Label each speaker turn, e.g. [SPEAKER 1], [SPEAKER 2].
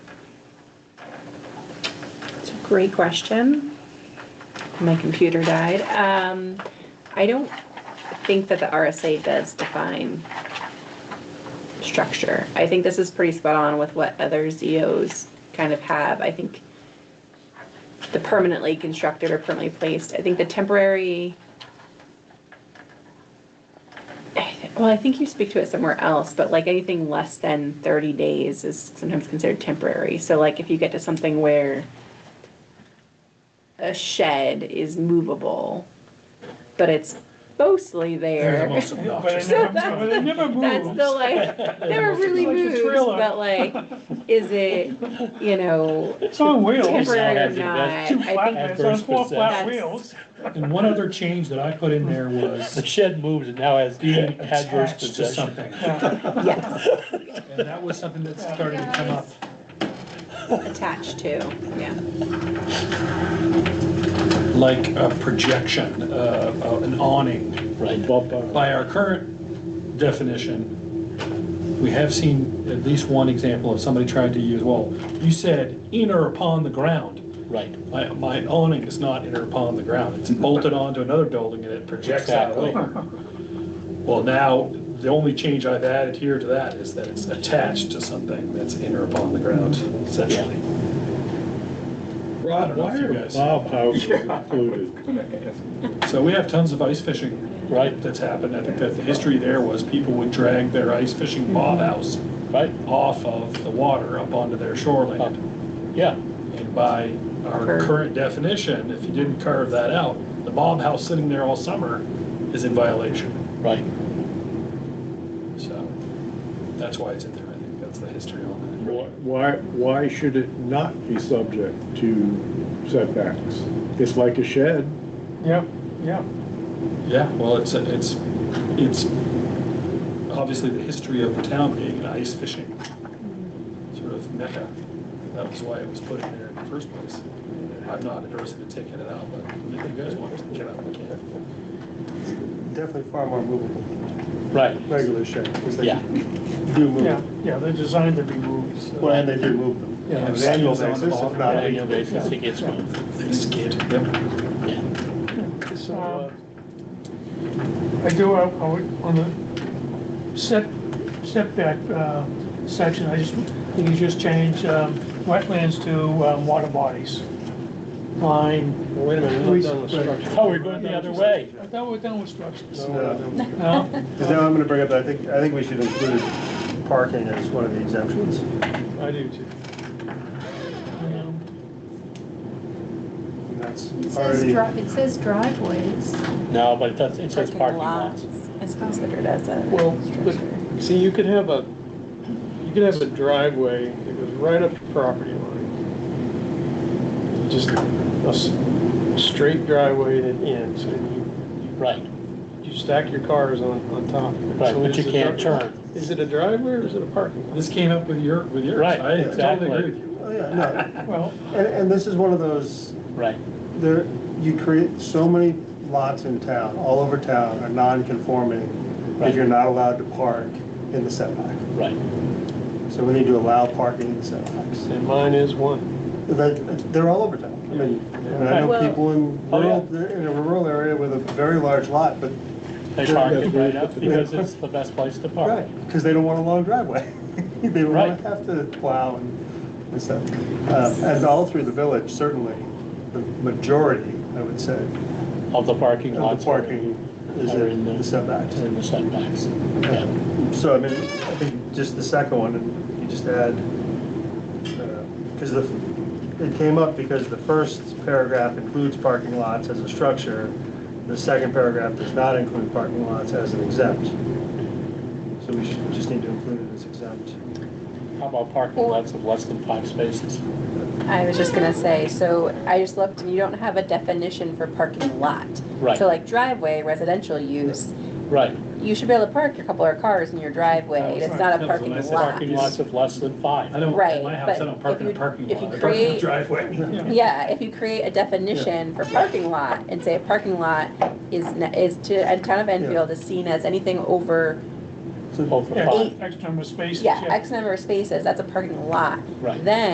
[SPEAKER 1] Great question. My computer died. Um, I don't think that the RSA does define structure. I think this is pretty spot on with what other ZOs kind of have. I think the permanently constructed or permanently placed, I think the temporary. Well, I think you speak to it somewhere else, but like anything less than thirty days is sometimes considered temporary. So like if you get to something where a shed is movable, but it's mostly there.
[SPEAKER 2] obnoxious.
[SPEAKER 1] So
[SPEAKER 2] But
[SPEAKER 1] that's
[SPEAKER 2] it never
[SPEAKER 1] the, that's
[SPEAKER 2] moves.
[SPEAKER 1] the like, never really
[SPEAKER 2] Like a
[SPEAKER 1] moves,
[SPEAKER 2] trailer.
[SPEAKER 1] but like, is it, you know,
[SPEAKER 2] It's on wheels.
[SPEAKER 1] temporary or
[SPEAKER 3] has the
[SPEAKER 1] not?
[SPEAKER 3] best-
[SPEAKER 2] Two flat,
[SPEAKER 1] I
[SPEAKER 2] it's on four
[SPEAKER 3] Adverse
[SPEAKER 2] flat
[SPEAKER 1] possession.
[SPEAKER 2] wheels.
[SPEAKER 4] And one other change that I put in there
[SPEAKER 3] The
[SPEAKER 4] was
[SPEAKER 3] shed moves and now has
[SPEAKER 4] being
[SPEAKER 3] adverse
[SPEAKER 4] attached to
[SPEAKER 3] possession.
[SPEAKER 4] something.
[SPEAKER 1] think, yes,
[SPEAKER 4] And that was something that's starting to come up.
[SPEAKER 1] attached to, yeah.
[SPEAKER 4] Like a projection, uh, uh, an awning.
[SPEAKER 3] Right, bump on.
[SPEAKER 4] By our current definition, we have seen at least one example of somebody trying to use, well, you said in or upon the ground.
[SPEAKER 3] Right,
[SPEAKER 4] My, my awning is not in or upon the ground. It's bolted onto another building and it projects out
[SPEAKER 3] Exactly.
[SPEAKER 4] later. Well, now, the only change I've added here to that is that it's attached to something that's in or upon the ground, essentially. I
[SPEAKER 5] Rod,
[SPEAKER 4] don't know
[SPEAKER 5] why
[SPEAKER 4] if you
[SPEAKER 5] are
[SPEAKER 4] guys-
[SPEAKER 5] bob houses included?
[SPEAKER 4] So we have tons of ice fishing
[SPEAKER 3] right,
[SPEAKER 4] that's happened. I think that the history there was people would drag their ice fishing bob house
[SPEAKER 3] right,
[SPEAKER 4] off of the water up onto their
[SPEAKER 3] up,
[SPEAKER 4] shoreline.
[SPEAKER 3] yeah,
[SPEAKER 4] And by our
[SPEAKER 1] Curve.
[SPEAKER 4] current definition, if you didn't carve that out, the bob house sitting there all summer is in violation.
[SPEAKER 3] right,
[SPEAKER 4] So that's why it's in there. I think that's the history on that.
[SPEAKER 5] Why, why should it not be subject to setbacks? It's like a shed.
[SPEAKER 2] Yep, yeah.
[SPEAKER 4] Yeah, well, it's, it's, it's obviously the history of the town being an ice fishing sort of mecca. That was why it was put in there in the first place. I'm not adverse to taking it out, but if you guys want to take it out, we can.
[SPEAKER 6] Definitely far more movable,
[SPEAKER 3] right,
[SPEAKER 6] regular shed, because they
[SPEAKER 3] yeah.
[SPEAKER 6] do move.
[SPEAKER 2] Yeah,
[SPEAKER 6] them.
[SPEAKER 2] yeah, they're designed to be moved. so-
[SPEAKER 6] Well, and they do move them.
[SPEAKER 2] Yeah.
[SPEAKER 6] On an annual
[SPEAKER 4] Yeah.
[SPEAKER 6] basis, if
[SPEAKER 3] On
[SPEAKER 6] not.
[SPEAKER 3] an annual basis, it gets moved,
[SPEAKER 4] They skid. Yep.
[SPEAKER 3] yeah.
[SPEAKER 2] So, uh, I do, uh, I would- on the set, setback uh, section, I just, you could just change um, wetlands to um, water bodies. Line.
[SPEAKER 6] Wait a minute, we're not done with structure.
[SPEAKER 3] Oh, we're going the other way.
[SPEAKER 2] I thought we're done with structures.
[SPEAKER 6] No,
[SPEAKER 2] No?
[SPEAKER 6] Because now I'm gonna bring up, I think, I think uh, we should include parking as one of the exemptions.
[SPEAKER 2] I do too. Um,
[SPEAKER 6] And that's
[SPEAKER 7] It says
[SPEAKER 6] already,
[SPEAKER 7] dri, it says driveways.
[SPEAKER 3] No, but it does, it says parking lots.
[SPEAKER 1] It's considered as a
[SPEAKER 8] Well, but,
[SPEAKER 1] structure.
[SPEAKER 8] see, you could have a, you could have a driveway that goes right up to property line. Just a s- straight driveway that ends, and
[SPEAKER 3] Right,
[SPEAKER 8] you, you stack your cars on, on top. of it.
[SPEAKER 3] right,
[SPEAKER 8] So
[SPEAKER 3] but
[SPEAKER 8] is
[SPEAKER 3] you
[SPEAKER 8] it a
[SPEAKER 3] can't
[SPEAKER 8] dri-
[SPEAKER 3] turn.
[SPEAKER 8] Is it a driveway or is it a parking lot?
[SPEAKER 4] This came up with your, with yours.
[SPEAKER 3] Right,
[SPEAKER 4] I
[SPEAKER 3] exactly.
[SPEAKER 4] totally agree with you.
[SPEAKER 6] oh, yeah, no,
[SPEAKER 2] Well,
[SPEAKER 6] and, and this is one of those,
[SPEAKER 3] Right,
[SPEAKER 6] there, you create, so many lots in town, all over town are non-conforming, that
[SPEAKER 3] Right.
[SPEAKER 6] you're not allowed to park in the setback.
[SPEAKER 3] right,
[SPEAKER 6] So we need to allow parking in the setbacks.
[SPEAKER 8] And mine is one.
[SPEAKER 6] That, they're all over town. I mean, and I know
[SPEAKER 1] Well-
[SPEAKER 6] people in
[SPEAKER 3] Oh, yeah.
[SPEAKER 6] rural, they're in a rural area with a very large lot, but,
[SPEAKER 3] they park it right up because it's the best place to park.
[SPEAKER 6] right, because they don't want a long driveway. They don't
[SPEAKER 3] Oh. Right.
[SPEAKER 6] want to have to plow and, and stuff. Uh, And all through the village, certainly, the majority, I would say,
[SPEAKER 3] Of the parking
[SPEAKER 6] of
[SPEAKER 3] lots.
[SPEAKER 6] the parking is
[SPEAKER 3] are in
[SPEAKER 6] in
[SPEAKER 3] the-
[SPEAKER 6] the setbacks.
[SPEAKER 3] In the setbacks, yeah.
[SPEAKER 6] So, I mean, I think just the second one, and you just add, because the, it came up because the first paragraph includes parking lots as a structure, the second paragraph does not include parking lots as an exempt. So we should, just need to include it as exempt.
[SPEAKER 3] How about parking lots of less than five spaces?
[SPEAKER 1] I was just gonna say, so I just looked and you don't have a definition for parking lot.
[SPEAKER 3] Right.
[SPEAKER 1] So like driveway, residential use,
[SPEAKER 3] Right.
[SPEAKER 1] you should be able to park a couple of cars in your driveway. It's not a
[SPEAKER 4] That was what
[SPEAKER 1] parking
[SPEAKER 4] I said.
[SPEAKER 1] lot.
[SPEAKER 3] Parking lots of less than
[SPEAKER 4] I
[SPEAKER 3] five.
[SPEAKER 4] don't,
[SPEAKER 1] Right,
[SPEAKER 4] at my house, I
[SPEAKER 1] but
[SPEAKER 4] don't park
[SPEAKER 1] if
[SPEAKER 4] in a
[SPEAKER 1] you-
[SPEAKER 4] parking
[SPEAKER 1] if you
[SPEAKER 4] lot. I park in the
[SPEAKER 1] create-
[SPEAKER 4] driveway.
[SPEAKER 1] Yeah, if you create a definition for parking lot and say a parking lot is, n- is to, and town of Enfield is seen as anything over,
[SPEAKER 3] Over
[SPEAKER 2] yeah,
[SPEAKER 3] five.
[SPEAKER 2] X number of spaces.
[SPEAKER 1] yeah, X number of spaces, that's a parking lot.
[SPEAKER 3] Right.
[SPEAKER 1] Then